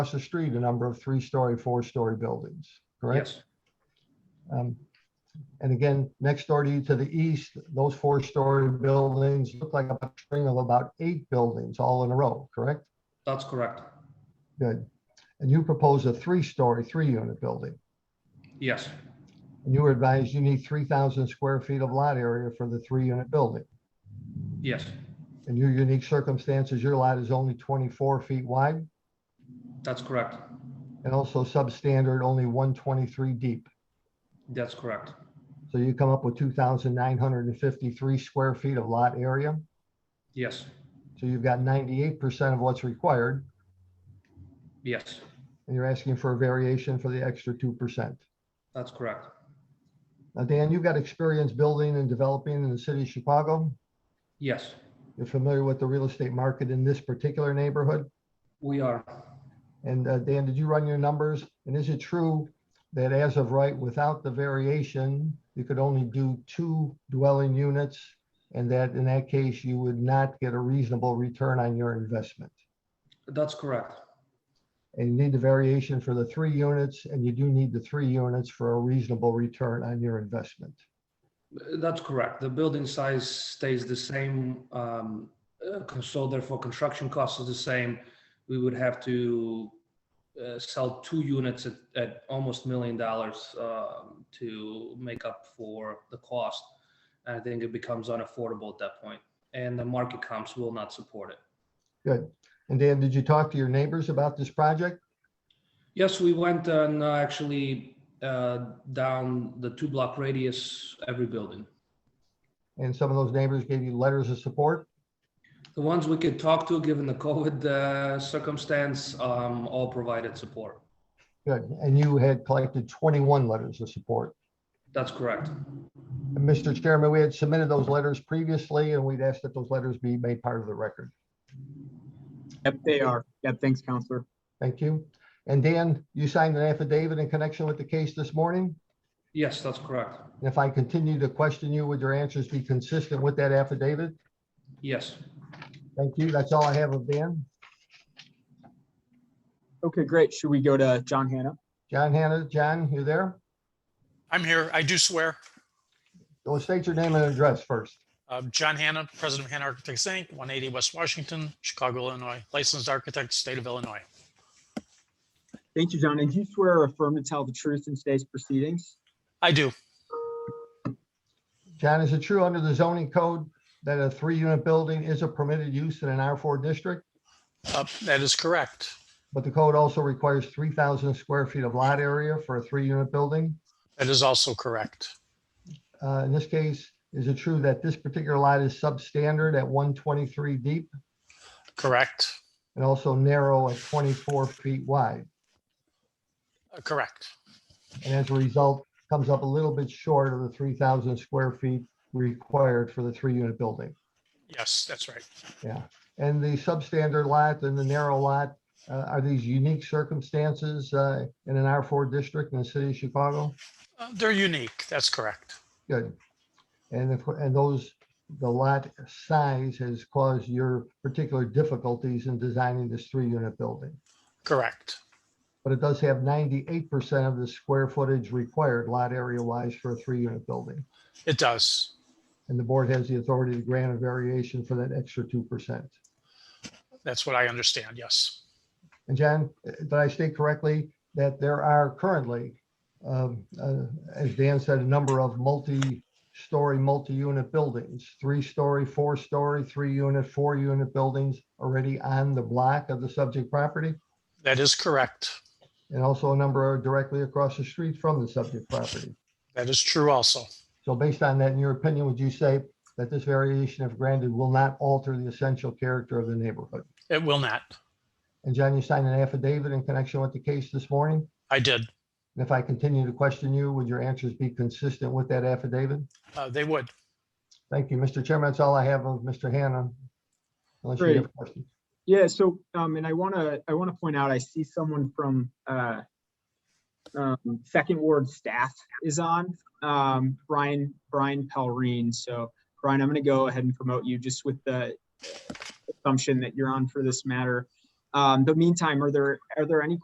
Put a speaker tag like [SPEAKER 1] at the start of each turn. [SPEAKER 1] across the street, a number of three-story, four-story buildings, correct?
[SPEAKER 2] Yes,
[SPEAKER 1] Um, And again, next door to you to the east, those four-story buildings look like a string of about eight buildings all in a row, correct?
[SPEAKER 2] that's correct.
[SPEAKER 1] Good. And you propose a three-story, three-unit building.
[SPEAKER 2] Yes,
[SPEAKER 1] And you were advised you need 3,000 square feet of lot area for the three-unit building.
[SPEAKER 2] yes,
[SPEAKER 1] In your unique circumstances, your lot is only 24 feet wide
[SPEAKER 2] that's correct.
[SPEAKER 1] and also substandard, only 123 deep.
[SPEAKER 2] That's correct.
[SPEAKER 1] So you come up with 2,953 square feet of lot area.
[SPEAKER 2] Yes,
[SPEAKER 1] So you've got 98% of what's required
[SPEAKER 2] yes,
[SPEAKER 1] and you're asking for a variation for the extra 2%.
[SPEAKER 2] that's correct.
[SPEAKER 1] Now, Dan, you've got experience building and developing in the city of Chicago.
[SPEAKER 2] Yes,
[SPEAKER 1] You're familiar with the real estate market in this particular neighborhood.
[SPEAKER 2] we are.
[SPEAKER 1] And uh, Dan, did you run your numbers? And is it true that as of right, without the variation, you could only do two dwelling units? And that in that case, you would not get a reasonable return on your investment?
[SPEAKER 2] That's correct.
[SPEAKER 1] And you need the variation for the three units, and you do need the three units for a reasonable return on your investment.
[SPEAKER 2] That's correct. The building size stays the same. um, uh, So therefore, construction costs are the same. We would have to uh, sell two units at, at almost million dollars um, to make up for the cost. And I think it becomes unaffordable at that point, and the market comps will not support it.
[SPEAKER 1] And Dan, did you talk to your neighbors about this project?
[SPEAKER 2] Yes, we went and uh, actually uh, down the two block radius, every building.
[SPEAKER 1] And some of those neighbors gave you letters of support?
[SPEAKER 2] The ones we could talk to, given the COVID uh, circumstance, um, all provided support.
[SPEAKER 1] Good. And you had collected 21 letters of support?
[SPEAKER 2] That's correct.
[SPEAKER 1] And Mr. Chairman, we had submitted those letters previously, and we'd asked that those letters be made part of the record.
[SPEAKER 3] Yep, they are. Yep, thanks, Counselor.
[SPEAKER 1] Thank you. And Dan, you signed an affidavit in connection with the case this morning?
[SPEAKER 2] Yes, that's correct.
[SPEAKER 1] And if I continue to question you, would your answers be consistent with that affidavit?
[SPEAKER 2] Yes,
[SPEAKER 1] Thank you. That's all I have of Dan.
[SPEAKER 3] Okay, great. Should we go to John Hannah?
[SPEAKER 1] John Hannah, John, you there?
[SPEAKER 4] I'm here. I do swear.
[SPEAKER 1] Well, state your name and address first.
[SPEAKER 4] Uh, John Hanna, President of Hanna Architects, Inc., 180 West Washington, Chicago, Illinois, licensed architect, state of Illinois.
[SPEAKER 3] Thank you, John. And do you swear or affirm to tell the truth in today's proceedings?
[SPEAKER 4] I do.
[SPEAKER 1] John, is it true under the zoning code that a three-unit building is a permitted use in an R4 district?
[SPEAKER 4] Uh, That is correct.
[SPEAKER 1] But the code also requires 3,000 square feet of lot area for a three-unit building?
[SPEAKER 4] That is also correct.
[SPEAKER 1] Uh, in this case, is it true that this particular lot is substandard at one twenty-three deep
[SPEAKER 4] Correct.
[SPEAKER 1] and also narrow at twenty-four feet wide?
[SPEAKER 4] Uh, Correct.
[SPEAKER 1] And as a result, comes up a little bit short of the three thousand square feet required for the three-unit building.
[SPEAKER 4] Yes, that's right.
[SPEAKER 1] And the substandard lot and the narrow lot, uh, are these unique circumstances, uh, in an R four district in the city of Chicago?
[SPEAKER 4] Uh, They're unique. That's correct.
[SPEAKER 1] Good. And if, and those, the lot size has caused your particular difficulties in designing this three-unit building?
[SPEAKER 4] Correct.
[SPEAKER 1] but it does have ninety-eight percent of the square footage required lot area wise for a three-unit building.
[SPEAKER 4] It does.
[SPEAKER 1] And the board has the authority to grant a variation for that extra two percent.
[SPEAKER 4] That's what I understand. Yes.
[SPEAKER 1] And John, eh, did I state correctly that there are currently, um, uh, as Dan said, a number of multi-story, multi-unit buildings, three-story, four-story, three-unit, four-unit buildings already on the block of the subject property?
[SPEAKER 4] That is correct.
[SPEAKER 1] And also a number are directly across the street from the subject property?
[SPEAKER 4] That is true also.
[SPEAKER 1] So based on that, in your opinion, would you say that this variation, if granted, will not alter the essential character of the neighborhood?
[SPEAKER 4] It will not.
[SPEAKER 1] And John, you signed an affidavit in connection with the case this morning.
[SPEAKER 4] I did.
[SPEAKER 1] And if I continue to question you, would your answers be consistent with that affidavit?
[SPEAKER 4] Uh, They would.
[SPEAKER 1] Thank you, Mr. Chairman. That's all I have of Mr. Hannah. Unless you have questions.
[SPEAKER 3] Yeah, so, um, and I want to, I want to point out, I see someone from, uh, um, Second Ward staff is on, um, Brian, Brian Pelrine. So Brian, I'm going to go ahead and promote you just with the assumption that you're on for this matter. Um, the meantime, are there, are there any